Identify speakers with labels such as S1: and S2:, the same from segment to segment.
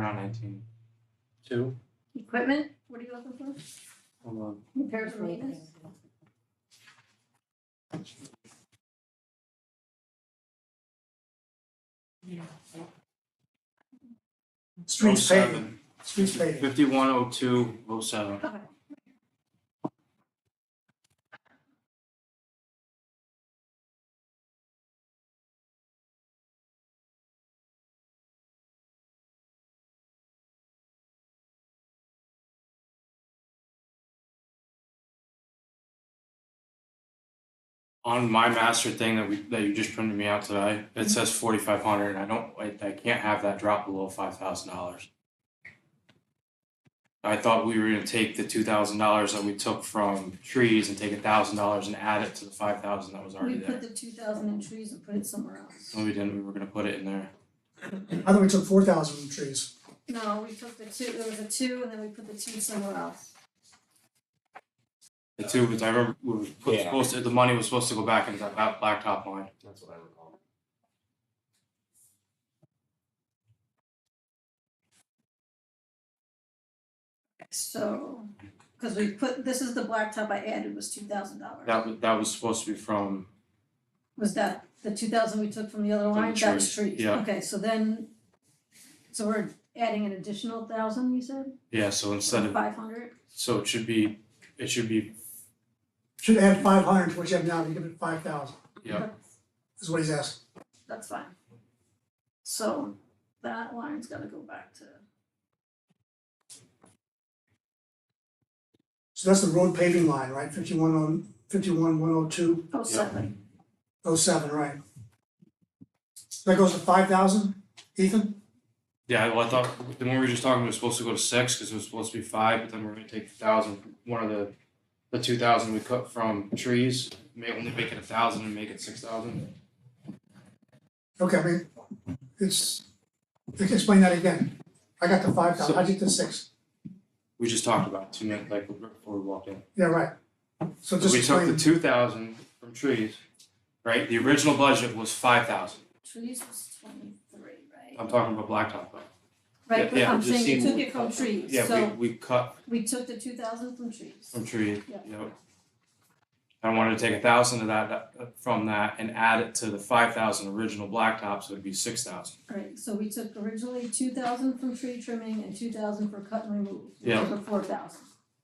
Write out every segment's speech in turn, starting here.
S1: Around nineteen.
S2: Two,
S3: Equipment, what are you looking for?
S2: hold on.
S3: Repairs and maintenance?
S4: Streets
S2: Oh,
S4: paving,
S2: seven.
S4: streets paving.
S2: Fifty-one oh two oh seven.
S3: Okay.
S2: On my master thing that we, that you just printed me out today, it says forty-five hundred, and I don't, I, I can't have that drop below five thousand dollars. I thought we were gonna take the two thousand dollars that we took from trees and take a thousand dollars and add it to the five thousand that was already
S3: We put
S2: there. Oh.
S3: the two thousand in trees and put it somewhere else.
S2: No, we didn't, we were gonna put it in there.
S4: I thought we took four thousand from trees.
S3: No, we took the two, there was a two and then we put the two somewhere else.
S2: The two, because I remember, we were put-
S5: Yeah.
S2: supposed to, the money was supposed to go back into that black- blacktop line.
S5: That's what I recall.
S3: So, cause we put, this is the blacktop I added was two thousand dollars.
S2: That was, that was supposed to be from,
S3: Was that the two thousand we took from the other
S2: From the
S3: line, that was
S2: trees,
S3: trees?
S2: yeah.
S3: Okay, so then, so we're adding an additional thousand, you said,
S2: yeah, so instead of,
S3: five hundred?
S2: so it should be, it should be,
S4: Should add five hundred to what you have now, you give it five thousand,
S2: yeah,
S4: is what he's asking.
S3: That's fine. So that line's gotta go back to,
S4: So that's the road paving line, right? Fifty-one on, fifty-one, one oh two,
S3: oh, seven,
S4: oh seven, right? That goes to five thousand, Ethan?
S2: yeah, well, I thought, the one we were just talking, it was supposed to go to six, because it was supposed to be five, but then we're gonna take the thousand, one of the, the two thousand we cut from trees, may only make it a thousand and make it six thousand.
S4: Okay, I mean, it's, explain that again. I got the five thousand, I did the six,
S2: We just talked about two minutes, like, before we walked in.
S4: yeah, right. So just
S2: We took the
S4: explain,
S2: two thousand from trees, right, the original budget was five thousand,
S3: trees was twenty-three, right?
S2: I'm talking about blacktop, though. yeah,
S3: Right, but
S2: yeah,
S3: I'm
S2: just
S3: saying you
S2: seeing
S3: took
S2: what-
S3: it from trees,
S2: yeah,
S3: so
S2: we, we cut
S3: we took the two thousand from trees.
S2: From tree,
S3: Yeah.
S2: yep. I wanted to take a thousand of that, that- from that and add it to the five thousand original blacktop, so it'd be six thousand.
S3: Right, so we took originally two thousand from tree trimming and two thousand for cut and remove, which
S2: Yeah.
S3: were four thousand.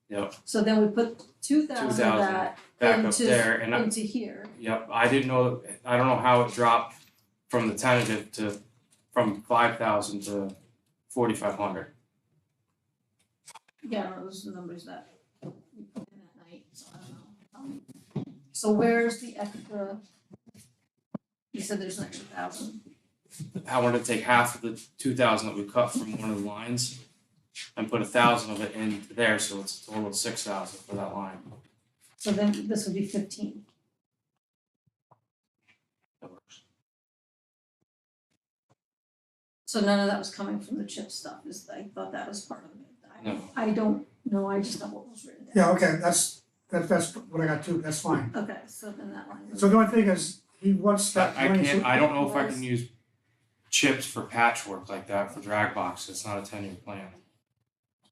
S2: Yep.
S3: So then we put two thousand of
S2: 2,000
S3: that
S2: Back up
S3: Into-
S2: there and I,
S3: into here,
S2: yep, I didn't know, I don't know how it dropped from the tentative to, from five thousand to forty-five hundred.
S3: yeah, I don't know, those are the numbers that we put in that night, so I don't know. Um, So where's the extra? You said there's an extra thousand,
S2: I wanted to take half of the two thousand that we cut from one of the lines and put a thousand of it in there, so it's a total of six thousand for that line.
S3: so then this would be fifteen.
S2: That works.
S3: So none of that was coming from the chip stuff, is, I thought that was part of it.
S2: No.
S3: I, I don't know, I just know what was written down.
S4: yeah, okay, that's, that, that's what I got too, that's fine.
S3: Okay, so then that line goes.
S4: So the only thing is, he wants that
S2: I
S4: money, so-
S2: can't, I don't know if I
S3: Was-
S2: can use chips for patchwork like that for drag boxes, it's not a ten year plan.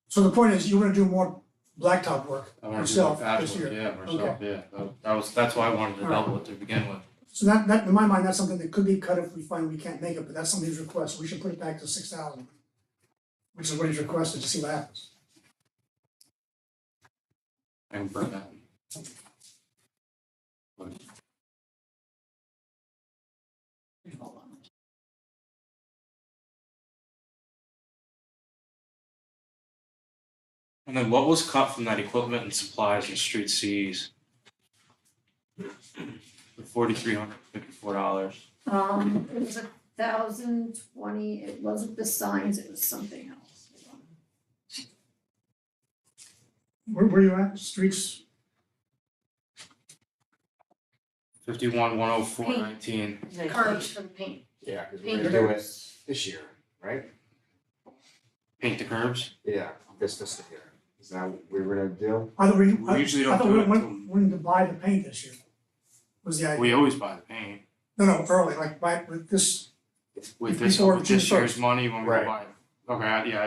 S4: So the point is, you wanna do more blacktop work
S2: I wanna do
S4: yourself
S2: like
S4: this
S2: patchwork,
S4: year.
S2: yeah, myself, yeah, that, that was, that's why I wanted to
S4: Alright.
S2: double it to begin with.
S4: So that, that, in my mind, that's something that could be cut if we find we can't make it, but that's somebody's request, we should put it back to six thousand. Which is what he's requested, to see what happens.
S2: I can burn that.
S3: Hold on.
S2: And then what was cut from that equipment and supplies and street Cs? The forty three hundred fifty four dollars,
S3: Um, it was a thousand twenty, it wasn't the signs, it was something else.
S4: Where, where you at, streets,
S2: fifty one, one oh four nineteen,
S3: Curbs for the paint.
S5: Yeah, because
S3: Thank
S5: we're gonna do it this year, right?
S2: paint the curbs,
S5: Yeah, this fiscal year. Is that what we were gonna do?
S4: I thought we,
S2: we
S4: I,
S2: usually
S4: I
S2: don't
S4: thought
S2: do
S4: we
S2: it
S4: went, went to buy the paint this year. Was the
S2: till-
S4: idea,
S2: we always buy the paint.
S4: no, no, early, like, buy, with this,
S2: With this,
S4: Before
S2: with this
S4: June
S2: year's money, when we
S5: Right.
S2: buy it. Okay, I- yeah,